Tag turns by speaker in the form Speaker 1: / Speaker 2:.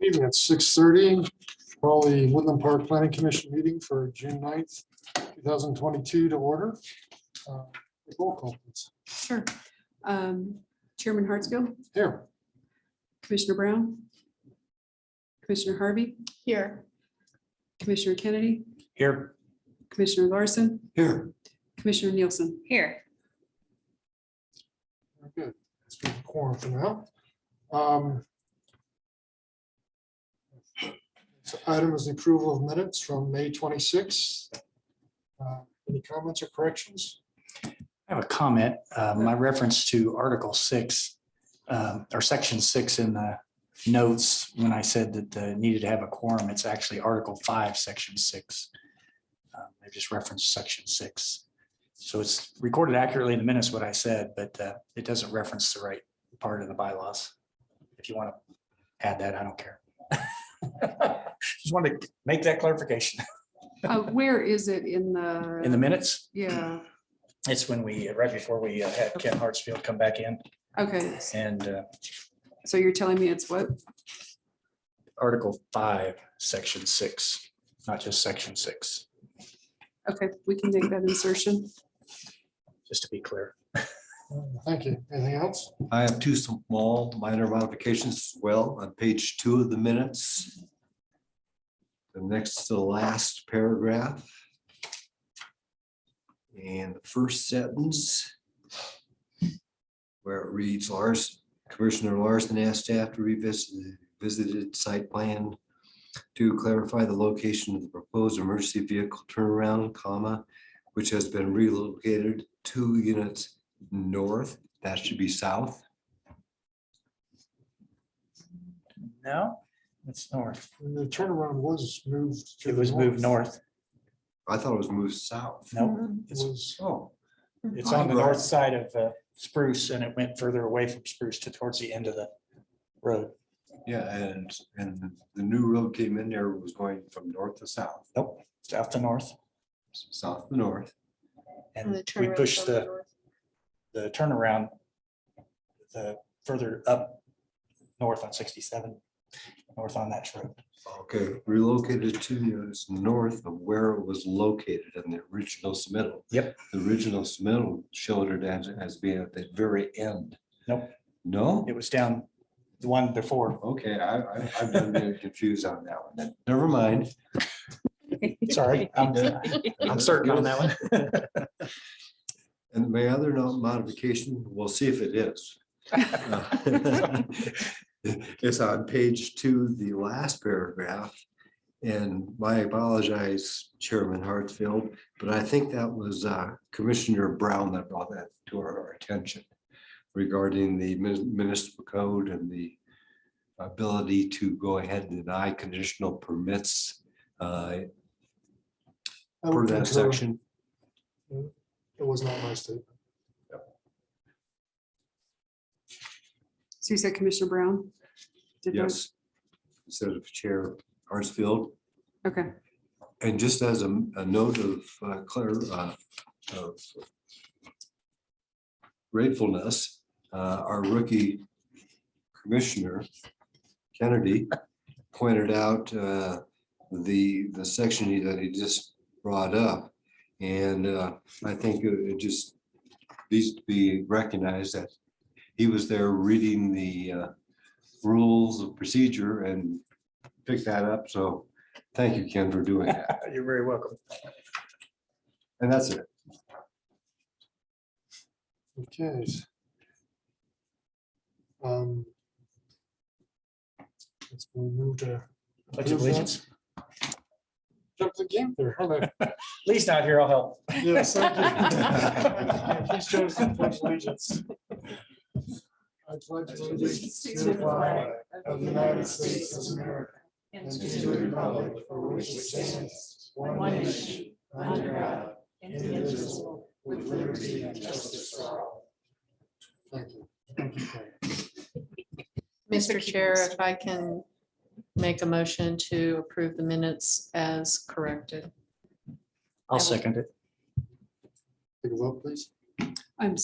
Speaker 1: meeting at six thirty. Call the Woodland Park Planning Commission meeting for June 9th, two thousand twenty-two to order. Uh, Roll call, please.
Speaker 2: Sure. Um, Chairman Hartsfield,
Speaker 1: Here,
Speaker 2: Commissioner Brown, Commissioner Harvey,
Speaker 3: Here.
Speaker 2: Commissioner Kennedy,
Speaker 4: Here.
Speaker 2: Commissioner Larson,
Speaker 1: here.
Speaker 2: Commissioner Nielsen.
Speaker 3: Here.
Speaker 1: Very Good. That's been the quorum for now. Um, so Item is the approval of minutes from May twenty-sixth. Uh, Any comments or corrections?
Speaker 4: I have a comment, uh, my reference to Article six, um, or Section six in the notes, when I said that the needed to have a quorum, it's actually Article five, Section six. Um, I just referenced Section six. So it's recorded accurately in the minutes what I said, but uh, it doesn't reference the right part of the bylaws. If you want to add that, I don't care. Just wanted to make that clarification.
Speaker 2: Uh, Where is it in the?
Speaker 4: In the minutes,
Speaker 2: Yeah,
Speaker 4: it's when we, right before we uh, had Ken Hartsfield come back in
Speaker 2: okay.
Speaker 4: and uh,
Speaker 2: So you're telling me it's what?
Speaker 4: Article five, section six, not just section six,
Speaker 2: Okay, we can make that insertion.
Speaker 4: just to be clear.
Speaker 1: Uh, Thank you. Anything else?
Speaker 5: I have two small minor modifications as well on page two of the minutes. The next to the last paragraph. And the first sentence. Where it reads Lars, Commissioner Larson asked staff to revisit, visited site plan. To clarify the location of the proposed emergency vehicle turnaround, comma, which has been relocated two units north that should be south.
Speaker 4: No, it's north.
Speaker 1: The turnaround was moved. to
Speaker 4: It
Speaker 1: the
Speaker 4: was moved north.
Speaker 5: I thought it was moved south.
Speaker 2: Mm-hmm.
Speaker 4: No, it's,
Speaker 1: Was
Speaker 5: Oh,
Speaker 4: it's on the north side of uh, Spruce and it went further away from Spruce to towards the end of the road.
Speaker 5: yeah, and, and the new road came in there, was going from north to south,
Speaker 4: Nope, south to north.
Speaker 5: south to north.
Speaker 4: And we pushed the, the turnaround the further up north on sixty-seven, north on that road.
Speaker 5: Okay, relocated two units north of where it was located in the original submittal.
Speaker 4: Yep.
Speaker 5: The original submittal showed it as, as being at the very end.
Speaker 4: Nope.
Speaker 5: No?
Speaker 4: It was down the one before
Speaker 5: Okay, I, I, I've been getting confused on that one. then. Never mind.
Speaker 4: Sorry, I'm, I'm certain on that one.
Speaker 5: And my other no- modification, we'll see if it is. Uh, It's on page two, the last paragraph. And I apologize, Chairman Hartsfield, but I think that was uh, Commissioner Brown that brought that to our attention regarding the mun- municipal code and the ability to go ahead and deny conditional permits uh,
Speaker 1: I
Speaker 5: per
Speaker 1: would concur.
Speaker 5: that section.
Speaker 1: It was not my statement.
Speaker 2: So you said Commissioner Brown? did that?
Speaker 5: Yes. Instead of Chair Hartsfield.
Speaker 2: Okay,
Speaker 5: And just as a, a note of uh, clear, uh, of gratefulness, uh, our rookie commissioner, Kennedy, pointed out, uh, the, the section he- that he just brought up. And, uh, I think it it just needs to be recognized that he was there reading the, uh, rules of procedure and picked that up. So thank you, Ken, for doing that.
Speaker 4: You're very welcome.
Speaker 5: And that's it.
Speaker 1: Okay. Um, Let's move to.
Speaker 4: Pledge of allegiance.
Speaker 1: Jump the game there. huh?
Speaker 4: Lee's not here, I'll help.
Speaker 1: Yes, thank you. Please join us in pledge of allegiance. I pledge allegiance to the flag of the United States of America and to the republic for which it stands, one nation, under God, indivisible, with liberty and justice for all. Thank you. Thank you. Craig.
Speaker 3: Mr. Chair, if I can make a motion to approve the minutes as corrected.
Speaker 4: I'll second it.
Speaker 1: Take a vote, please.